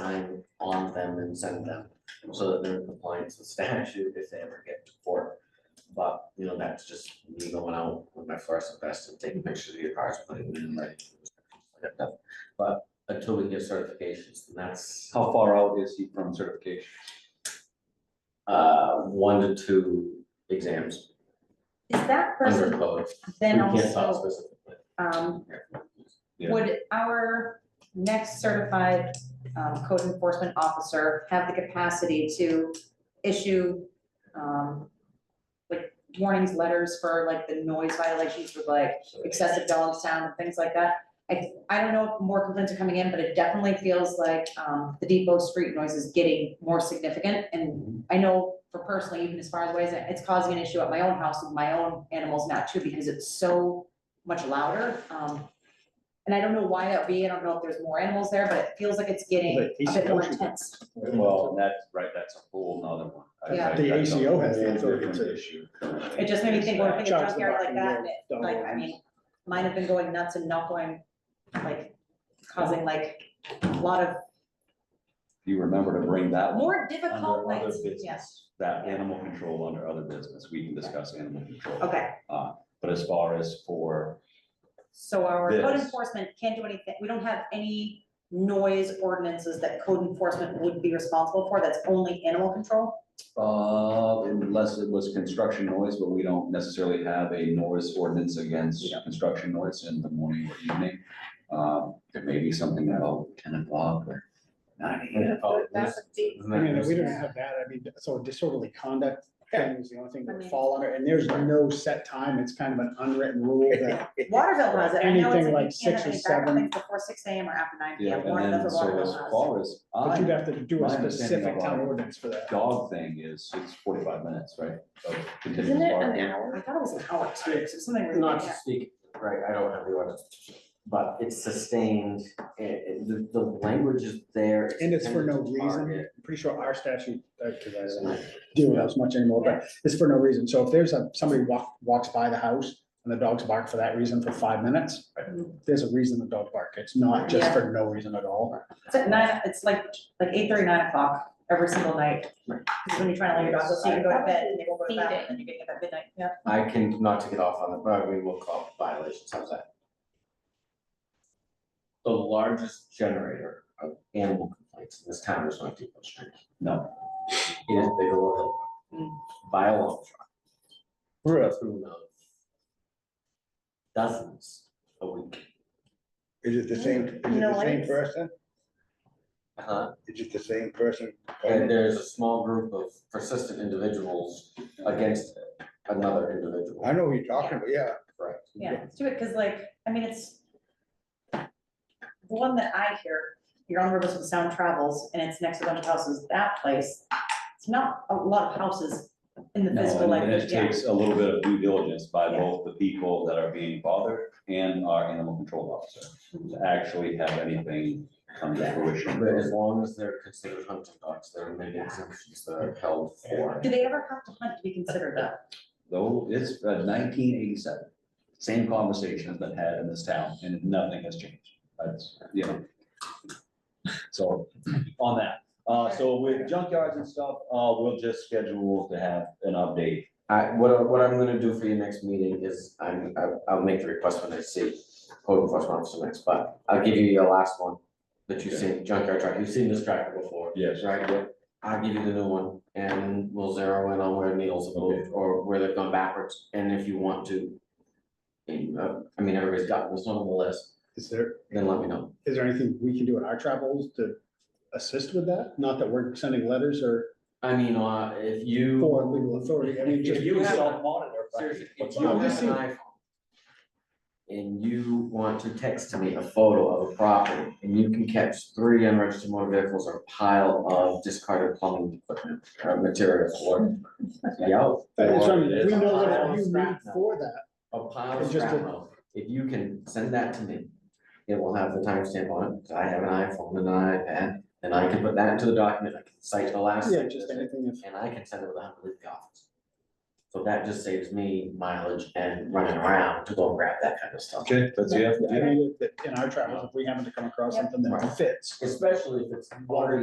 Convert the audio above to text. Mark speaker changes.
Speaker 1: sign on them and send them, so that they're in compliance with statute if they ever get to court. But, you know, that's just me going out with my fluorescent vest and taking pictures of your cars, putting them in like. But until we get certifications, and that's,
Speaker 2: How far out is he from certification?
Speaker 1: uh, one to two exams
Speaker 3: Is that
Speaker 1: under
Speaker 3: person
Speaker 1: code.
Speaker 3: then
Speaker 1: We can't talk
Speaker 3: also,
Speaker 1: specifically.
Speaker 3: um,
Speaker 2: Yeah.
Speaker 3: would our next certified, um, code enforcement officer have the capacity to issue, um, like warnings, letters for like the noise violations with like
Speaker 1: So-
Speaker 3: excessive dog sound and things like that? I, I don't know if more complaints are coming in, but it definitely feels like, um, the depot street noise is getting more significant and I know for personally, even as far as ways, it's causing an issue at my own house with my own animals now too, because it's so much louder. Um, and I don't know why that would be, I don't know if there's more animals there, but it feels like it's getting
Speaker 4: But
Speaker 3: a bit more
Speaker 4: ACO
Speaker 3: intense.
Speaker 2: Well, and that's, right, that's a whole nother one. I- I-
Speaker 3: Yeah.
Speaker 4: Mm-hmm. The
Speaker 2: that's a
Speaker 4: ACO has
Speaker 2: whole
Speaker 4: that authority
Speaker 2: different
Speaker 4: too.
Speaker 2: issue.
Speaker 3: It just made me think, when I think of
Speaker 4: Charge the
Speaker 3: junkyard like
Speaker 4: barking
Speaker 3: that,
Speaker 4: dog,
Speaker 3: and it- like, I mean, mine have been going nuts and not going, like, causing like a lot of
Speaker 2: You remember to bring that one
Speaker 3: more difficult
Speaker 2: under other
Speaker 3: nights, yes,
Speaker 2: business, that animal control under other business, we can discuss animal control.
Speaker 3: okay.
Speaker 2: But as far as for,
Speaker 3: So our code
Speaker 2: This.
Speaker 3: enforcement can't do anything, we don't have any noise ordinances that code enforcement would be responsible for, that's only animal control?
Speaker 2: uh, unless it was construction noise, but we don't necessarily have a noise ordinance against
Speaker 3: Yeah.
Speaker 2: construction noise in the morning or evening. Um, It may be something about ten o'clock or nine AM.
Speaker 1: Oh, this-
Speaker 5: deep.
Speaker 4: I mean, we don't have that, I mean, so disorderly conduct thing is the only thing
Speaker 3: I
Speaker 4: that would
Speaker 3: mean-
Speaker 4: fall under, and there's no set time, it's kind of an unwritten rule that.
Speaker 3: Waterville has it, I know it's
Speaker 4: Anything
Speaker 3: like,
Speaker 4: like
Speaker 3: you can't have
Speaker 4: six or
Speaker 3: any backup
Speaker 4: seven.
Speaker 3: things before six AM or after nine
Speaker 2: Yeah,
Speaker 3: PM, one
Speaker 2: and
Speaker 3: of
Speaker 2: then
Speaker 3: those
Speaker 2: so
Speaker 3: Waterville
Speaker 2: as
Speaker 3: has.
Speaker 2: far as
Speaker 4: But
Speaker 2: I
Speaker 4: you'd have to do
Speaker 2: My
Speaker 4: a
Speaker 2: understanding
Speaker 4: specific
Speaker 2: of
Speaker 4: town
Speaker 2: our
Speaker 4: ordinance for that.
Speaker 2: dog thing is, it's forty-five minutes, right? of continuous
Speaker 5: Isn't it an
Speaker 2: barking.
Speaker 3: I
Speaker 5: hour?
Speaker 3: thought it was an hour too, so something really,
Speaker 1: Not to
Speaker 3: yeah,
Speaker 1: speak, right, I don't have the ordinance, but it's sustained, it, it- the, the language is there.
Speaker 4: And it's for no
Speaker 1: intended to
Speaker 4: reason,
Speaker 1: target.
Speaker 4: I'm pretty sure our statute, because I don't deal with that as much anymore, but it's for no reason, so if there's a, somebody walk, walks by the house and the dogs bark for that reason for five minutes, there's a reason the dog bark, it's not just
Speaker 3: Mm-hmm. Yeah.
Speaker 4: for no reason at all.
Speaker 3: it's at nine, it's like, like eight thirty, nine o'clock every single night. Because when you're trying to lay your dogs, so you can go to bed and they will go to bed, and then you're getting up at midnight, yeah.
Speaker 1: I can, not to get off on the, but we will call it violations, how's that? The largest generator of animal complaints in this town is not Depot Street.
Speaker 2: No.
Speaker 1: It is Bigelow Hill.
Speaker 3: Mm.
Speaker 1: By a long shot. We're a through of dozens a week.
Speaker 6: Is it the same, is it the same
Speaker 5: Noise.
Speaker 6: person?
Speaker 1: Uh-huh.
Speaker 6: Is it the same person?
Speaker 1: And there's a small group of persistent individuals against another individual.
Speaker 6: I know who you're talking about, yeah.
Speaker 1: Correct.
Speaker 3: Yeah, let's do it, cause like, I mean, it's. The one that I hear, you're on the rivers with sound travels and it's next to a bunch of houses, that place, it's not a lot of houses in the
Speaker 2: No, and-
Speaker 3: physical
Speaker 2: and it
Speaker 3: language, yeah.
Speaker 2: takes a little bit of due diligence by
Speaker 3: Yeah.
Speaker 2: both the people that are being bothered and our animal control officer
Speaker 3: Mm-hmm.
Speaker 2: to actually have anything come to fruition.
Speaker 1: But as long as they're considered hunting dogs, there are many exemptions that are held for.
Speaker 3: Do they ever have to hunt to be considered though?
Speaker 2: Though it's uh, nineteen eighty-seven, same conversation has been had in this town and nothing has changed. That's, you know. So on that, uh, so with junkyards and stuff, uh, we'll just schedule to have an update.
Speaker 1: I, what, I- what I'm gonna do for your next meeting is, I'm, I- I'll make the request when I see code enforcement officer next, but I'll give you your last one that you've seen, junkyard truck, you've seen this tractor before,
Speaker 2: Yes.
Speaker 1: right? Yep. I'll give you the new one, and we'll zero in on where needles have moved, or where they've gone backwards, and if you want to, and, uh, I mean, everybody's got this one on the list,
Speaker 4: Is there,
Speaker 1: then let me know.
Speaker 4: is there anything we can do in our travels to assist with that? Not that we're sending letters or
Speaker 1: I mean, uh, if you,
Speaker 4: for legal authority, I mean, just.
Speaker 1: If you have-
Speaker 4: monitor.
Speaker 1: seriously, if
Speaker 4: What's
Speaker 1: you
Speaker 4: on
Speaker 1: have
Speaker 4: the
Speaker 1: an
Speaker 4: scene?
Speaker 1: iPhone and you want to text me a photo of a property, and you can catch three unregistered motor vehicles or a pile of discarded plumbing equipment, or materials, or, yeah,
Speaker 4: That's what I
Speaker 1: or
Speaker 4: mean, We know
Speaker 1: Pile
Speaker 4: what
Speaker 1: of
Speaker 4: you need
Speaker 1: scrap metal.
Speaker 4: for that.
Speaker 1: a pile of
Speaker 4: It's just
Speaker 1: scrap
Speaker 4: a-
Speaker 1: metal, if you can send that to me, it will have the timestamp on it, 'cause I have an iPhone and an iPad, and I can put that into the document, I can cite the last
Speaker 4: Yeah,
Speaker 1: sentence,
Speaker 4: just anything if,
Speaker 1: and I can send it without leaving the office. So that just saves me mileage and running around to go and grab that kind of stuff.
Speaker 2: Okay, that's, yeah,
Speaker 4: I mean, that- In our travels, if we happen to come across something that fits.
Speaker 1: Especially if it's water